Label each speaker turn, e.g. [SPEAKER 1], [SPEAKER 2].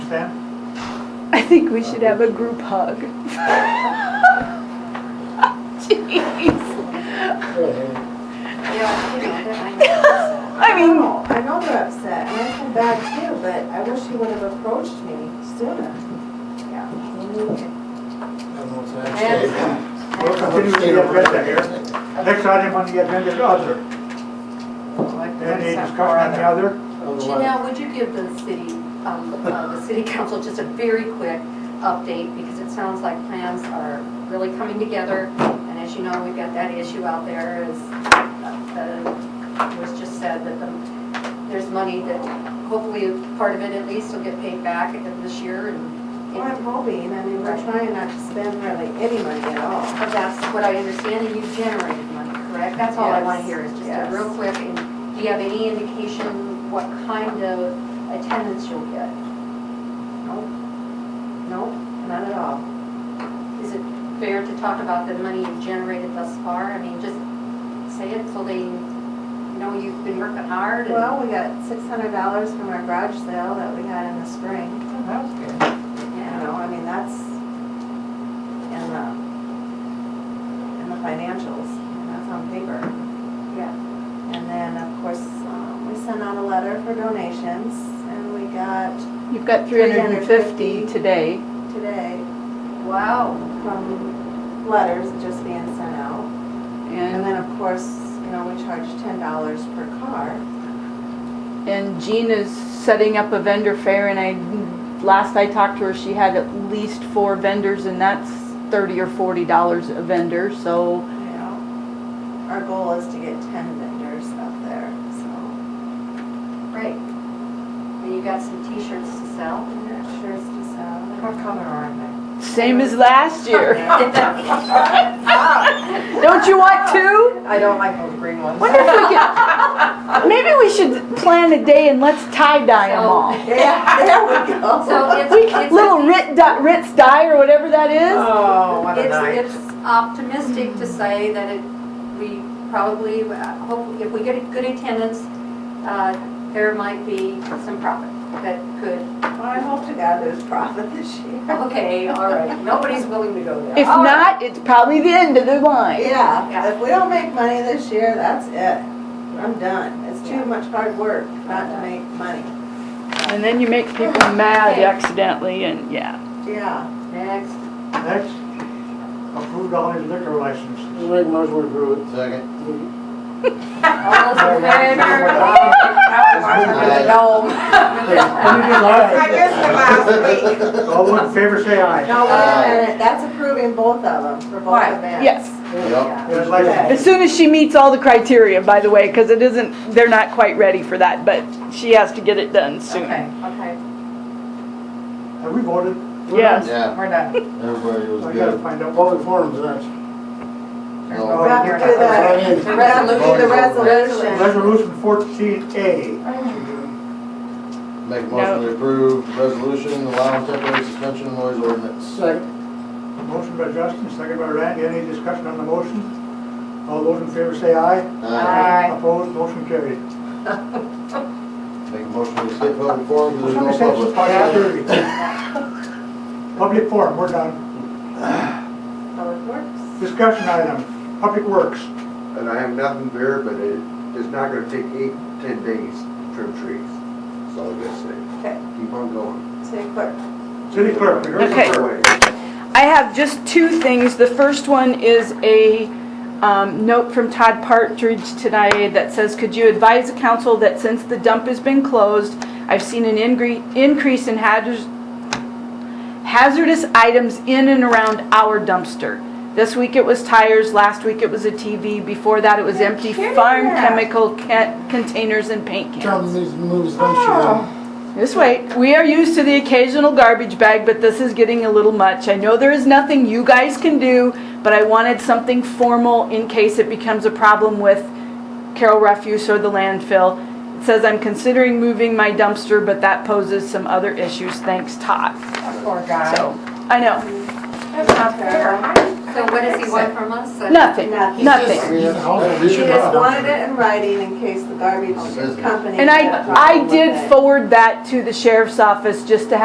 [SPEAKER 1] understand?
[SPEAKER 2] I think we should have a group hug. Jeez.
[SPEAKER 3] Yeah, you know, I know.
[SPEAKER 2] I mean-
[SPEAKER 3] know, I know they're upset, and I feel bad too, but I wish he would have approached me sooner. Yeah.
[SPEAKER 1] We'll continue with the agenda here. Next item on the agenda is other. Any discussion on the other?
[SPEAKER 4] Janelle, would you give the city, um, uh, the city council just a very quick update? Because it sounds like plans are really coming together, and as you know, we've got that issue out there, is, uh, was just said that the- there's money that hopefully part of it at least will get paid back this year, and
[SPEAKER 3] Well, I'm hoping, I mean, we're trying not to spend really any money at all.
[SPEAKER 4] but that's what I understand, and you've generated money, correct? That's all I want to
[SPEAKER 3] Yes,
[SPEAKER 4] hear, is just a
[SPEAKER 3] yes.
[SPEAKER 4] real quick, and do you have any indication what kind of attendance you'll get?
[SPEAKER 3] Nope. Nope, not at all.
[SPEAKER 4] Is it fair to talk about the money you've generated thus far? I mean, just say it so they know you've been working hard and...
[SPEAKER 3] Well, we got six hundred dollars from our garage sale that we had in the spring. You
[SPEAKER 4] Yeah.
[SPEAKER 3] know, I mean, that's in the, in the financials, and that's on paper.
[SPEAKER 4] Yeah.
[SPEAKER 3] And then, of course, um, we sent out a letter for donations, and we got
[SPEAKER 2] You've got 350 today.
[SPEAKER 3] today
[SPEAKER 4] Wow.
[SPEAKER 3] from letters just being sent out. And
[SPEAKER 2] And,
[SPEAKER 3] then, of course, you know, we charge ten dollars per car.
[SPEAKER 2] and Gina's setting up a vendor fair and I, last I talked to her, she had at least four vendors and that's 30 or 40 dollars a vendor, so.
[SPEAKER 3] You know, our goal is to get ten vendors up there, so
[SPEAKER 4] Great. And you got some t-shirts to sell?
[SPEAKER 3] I'm not sure it's just out.
[SPEAKER 5] color are
[SPEAKER 2] Same as last year. Don't you want two?
[SPEAKER 5] they? I don't like those green ones.
[SPEAKER 2] Wonder if we could, maybe we should plan a day and let's tie dye them all.
[SPEAKER 3] Yeah, there we go.
[SPEAKER 4] So it's, it's...
[SPEAKER 2] Little Rit, di- Ritz dye or whatever that is.
[SPEAKER 5] Oh, what a night.
[SPEAKER 4] It's, it's optimistic to say that it, we probably, uh, hope, if we get a good attendance, uh, there might be some profit that could
[SPEAKER 3] Well, I hope to God there's profit this year.
[SPEAKER 5] Oh,
[SPEAKER 4] Okay, all right, nobody's willing to go there.
[SPEAKER 2] If
[SPEAKER 4] All right.
[SPEAKER 2] not, it's probably the end of the line.
[SPEAKER 3] Yeah,
[SPEAKER 4] Yeah.
[SPEAKER 3] if we don't make money this year, that's it. I'm done. It's too much hard work not to make money.
[SPEAKER 2] And then you make people mad accidentally and, yeah.
[SPEAKER 3] Yeah.
[SPEAKER 4] Next,
[SPEAKER 1] Next, approved all his liquor licenses.
[SPEAKER 6] Make motion to approve it. Second.
[SPEAKER 4] all those in favor?
[SPEAKER 5] I missed it last week.
[SPEAKER 1] All those in favor say aye.
[SPEAKER 3] No, wait
[SPEAKER 6] Uh,
[SPEAKER 3] a minute, that's approving both of them for both
[SPEAKER 5] Um, Right,
[SPEAKER 3] events.
[SPEAKER 2] Yes,
[SPEAKER 6] Yep.
[SPEAKER 1] Yes, license.
[SPEAKER 2] as soon as she meets all the criteria, by the way, because it isn't, they're not quite ready for that, but she has to get it done soon.
[SPEAKER 5] Okay.
[SPEAKER 4] Okay,
[SPEAKER 1] Have we voted?
[SPEAKER 2] Yes.
[SPEAKER 6] Yeah,
[SPEAKER 5] We're done.
[SPEAKER 6] everybody
[SPEAKER 1] I
[SPEAKER 6] was
[SPEAKER 1] gotta
[SPEAKER 6] good.
[SPEAKER 1] find out.
[SPEAKER 7] All the forums, that's.
[SPEAKER 3] We
[SPEAKER 6] No.
[SPEAKER 3] have to do the,
[SPEAKER 7] Well,
[SPEAKER 3] we have to do the resolution.
[SPEAKER 1] Resolution fourteen A.
[SPEAKER 6] Make motion to approve resolution allowing temporary suspension of noise ordinance.
[SPEAKER 7] Second.
[SPEAKER 1] Motion by Justin, second by Randy. Any discussion on the motion? All those in favor say aye.
[SPEAKER 6] Uh,
[SPEAKER 1] Opposed, motion carried.
[SPEAKER 6] Make motion to skip public forum, 'cause
[SPEAKER 1] Somebody
[SPEAKER 6] there's
[SPEAKER 1] said
[SPEAKER 6] no
[SPEAKER 1] it's
[SPEAKER 6] public.
[SPEAKER 1] public hearing. Public forum, we're done.
[SPEAKER 3] Public Works.
[SPEAKER 1] Discussion item, Public Works.
[SPEAKER 8] And I have nothing there, but it, it's not gonna take eight, ten days to trim trees. That's all I'm gonna say.
[SPEAKER 3] Okay,
[SPEAKER 8] Keep on going.
[SPEAKER 3] city clerk.
[SPEAKER 1] City Clerk, rehearsal.
[SPEAKER 2] Okay.
[SPEAKER 8] Away.
[SPEAKER 2] I have just two things. The first one is a um, note from Todd Partridge today that says, could you advise the council that since the dump has been closed, I've seen an ingre- increase in hazardous, hazardous items in and around our dumpster. This week it was tires, last week it was a TV, before that it was
[SPEAKER 3] You're
[SPEAKER 2] empty
[SPEAKER 3] kidding.
[SPEAKER 2] farm chemical ca- containers and paint cans.
[SPEAKER 7] Tom needs to move his dumpster down.
[SPEAKER 2] This way, we are used to the occasional garbage bag, but this is getting a little much. I know there is nothing you guys can do, but I wanted something formal in case it becomes a problem with Carroll Refuse or the landfill. It says I'm considering moving my dumpster, but that poses some other issues. Thanks, Todd.
[SPEAKER 5] Poor guy.
[SPEAKER 2] So, I know,
[SPEAKER 5] That's not fair.
[SPEAKER 4] so what does he want from us?
[SPEAKER 2] nothing,
[SPEAKER 3] Nothing.
[SPEAKER 2] nothing.
[SPEAKER 7] He's a house, he
[SPEAKER 3] She
[SPEAKER 7] should
[SPEAKER 3] just
[SPEAKER 7] have a
[SPEAKER 3] wanted
[SPEAKER 7] dumpster.
[SPEAKER 3] it in writing in case the garbage company.
[SPEAKER 2] And
[SPEAKER 3] had a
[SPEAKER 2] I, I
[SPEAKER 3] problem with
[SPEAKER 2] did
[SPEAKER 3] it.
[SPEAKER 2] forward that to the sheriff's office just to have